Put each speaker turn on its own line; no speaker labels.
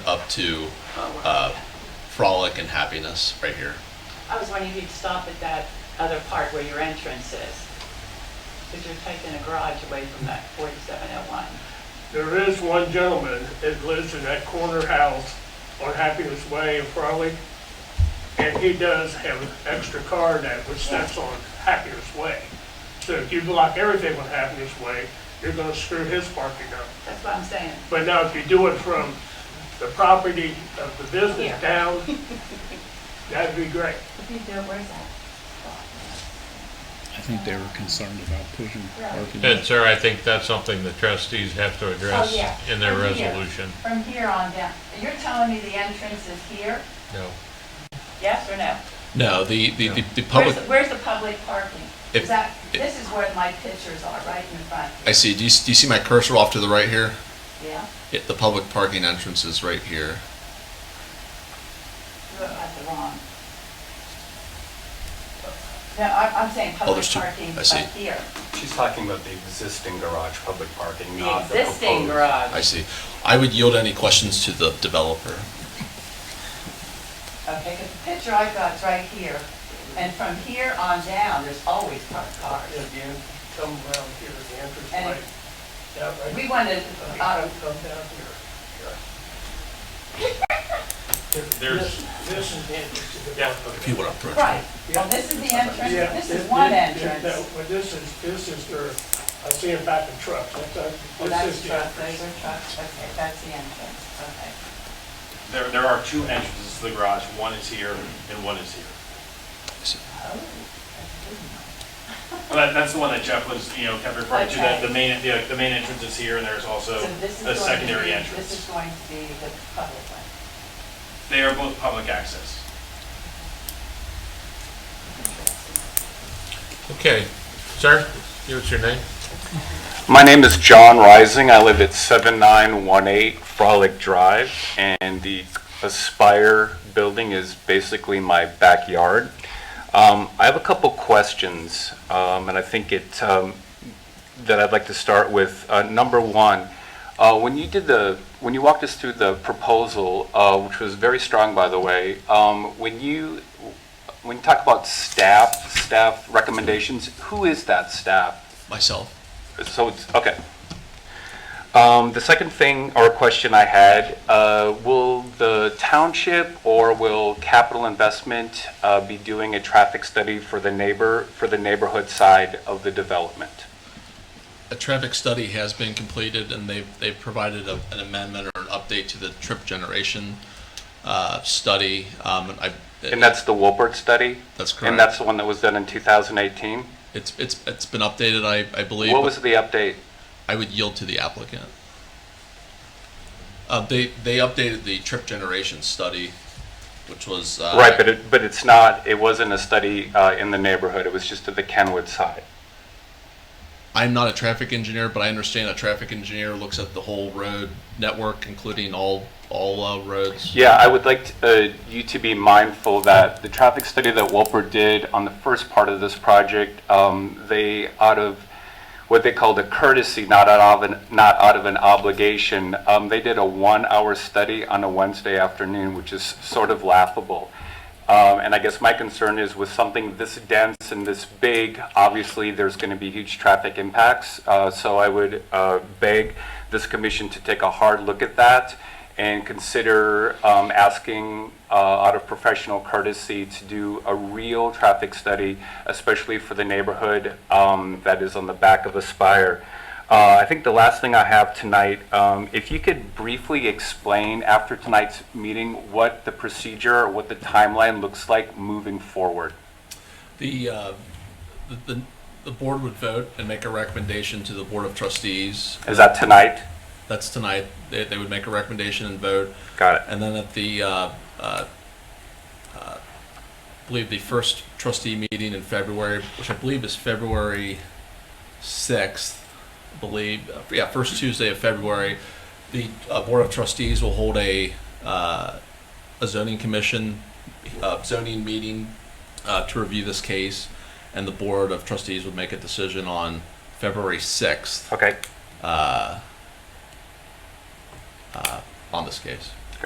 to uh, Frolic and Happiness right here.
I was wondering if you'd stop at that other part where your entrance is, because you're taking a garage away from that 4701.
There is one gentleman that lives in that corner house on Happiness Way in Frawley, and he does have an extra car that which that's on Happiness Way. So if you block everything on Happiness Way, you're gonna screw his parking up.
That's what I'm saying.
But now if you do it from the property of the
Here.
business down, that'd be great.
If you do it, where's that?
I think they were concerned about pushing parking.
And sir, I think that's something the trustees have to address
Oh, yeah.
in their
From here.
resolution.
From here on down, you're telling me the entrance is here?
No.
Yes or no?
No, the, the, the, the
Where's,
public,
the- where's the public parking?
If-
Is that,
if-
this is where my pictures are, right in front,
I see, do you, do you see my cursor off to the right here?
yeah?
Yeah, the public parking entrance is right here.
You look at the wrong. No, I'm, I'm saying public
Oh, there's two.
parking
I
up
see.
here.
She's talking about the existing garage, public parking,
The
not the proposed.
existing garage.
Oh, I see. I would yield any questions to the developer.
Okay, 'cause the picture I got's right here, and from here on down, there's always parked cars.
If you come around here, the entrance
And-
way, yeah, right.
We wanted,
Come
uh,
come down here. This, this is the entrance to the
Yeah,
property.
If you would approach.
right, well, this is the entrance,
Yeah,
this is one
yeah,
entrance.
no, But this is, this is their, I see it back in trucks, that's, uh,
Well, Oh,
this
that's
is the
trucks, those
entrance.
are trucks, okay, that's the entrance, okay.
There, there are two entrances to the garage. One is here and one is here.
Oh, that's good.
Well, That, that's the one that Jeff was, you know, kept referring to, that
Okay.
the main, the, the main entrance is here and there's also
So this is
a
going to
secondary
be- This
entrance.
is going to be the public one.
They are both public access.
Okay, sir, give us your name.
My name is John Rising. I live at 7918 Frolic Drive, and the Aspire building is basically my backyard. Um, I have a couple questions, um, and I think it, um, that I'd like to start with. Uh, Number one, uh, when you did the, when you walked us through the proposal, uh, which was very strong, by the way, um, when you, when you talk about staff, staff recommendations, who is that staff?
Myself.
So it's, okay. Um, The second thing or question I had, uh, will the township or will capital investment uh, be doing a traffic study for the neighbor, for the neighborhood side of the development?
A traffic study has been completed and they've, they've provided a- an amendment or an update to the trip generation uh, study. Um, and I,
And that's the Wolpert study?
That's
And
correct.
that's the one that was done in 2018?
It's, it's, it's been updated, I, I believe.
What
but-
was the update?
I would yield to the applicant. Uh, they, they updated the trip generation study, which was. uh,
Right, but it, but it's not, it wasn't a study uh, in the neighborhood, it was just to the Kenwood side.
I'm not a traffic engineer, but I understand a traffic engineer looks at the whole road network, including all, all uh, roads.
Yeah, I would like to, uh, you to be mindful that the traffic study that Wolper did on the first part of this project, um, they, out of what they called a courtesy, not out of an, not out of an obligation, um, they did a one-hour study on a Wednesday afternoon, which is sort of laughable. Um, And I guess my concern is with something this dense and this big, obviously, there's going to be huge traffic impacts. Uh, So I would uh, beg this commission to take a hard look at that and consider um, asking, uh, out of professional courtesy, to do a real traffic study, especially for the neighborhood um, that is on the back of Aspire. Uh, I think the last thing I have tonight, um, if you could briefly explain after tonight's meeting what the procedure or what the timeline looks like moving forward.
The, uh, the- the, the board would vote and make a recommendation to the Board of Trustees.
Is that tonight?
That's tonight. They, they would make a recommendation and vote.
Got it.
And then at the, uh, uh, uh, I believe the first trustee meeting in February, which I believe is February 6th, I believe, uh, yeah, first Tuesday of February, the uh, Board of Trustees will hold a, uh, a zoning commission, uh, zoning meeting uh, to review this case, and the Board of Trustees would make a decision on February 6th
Okay.
uh, uh, on this case.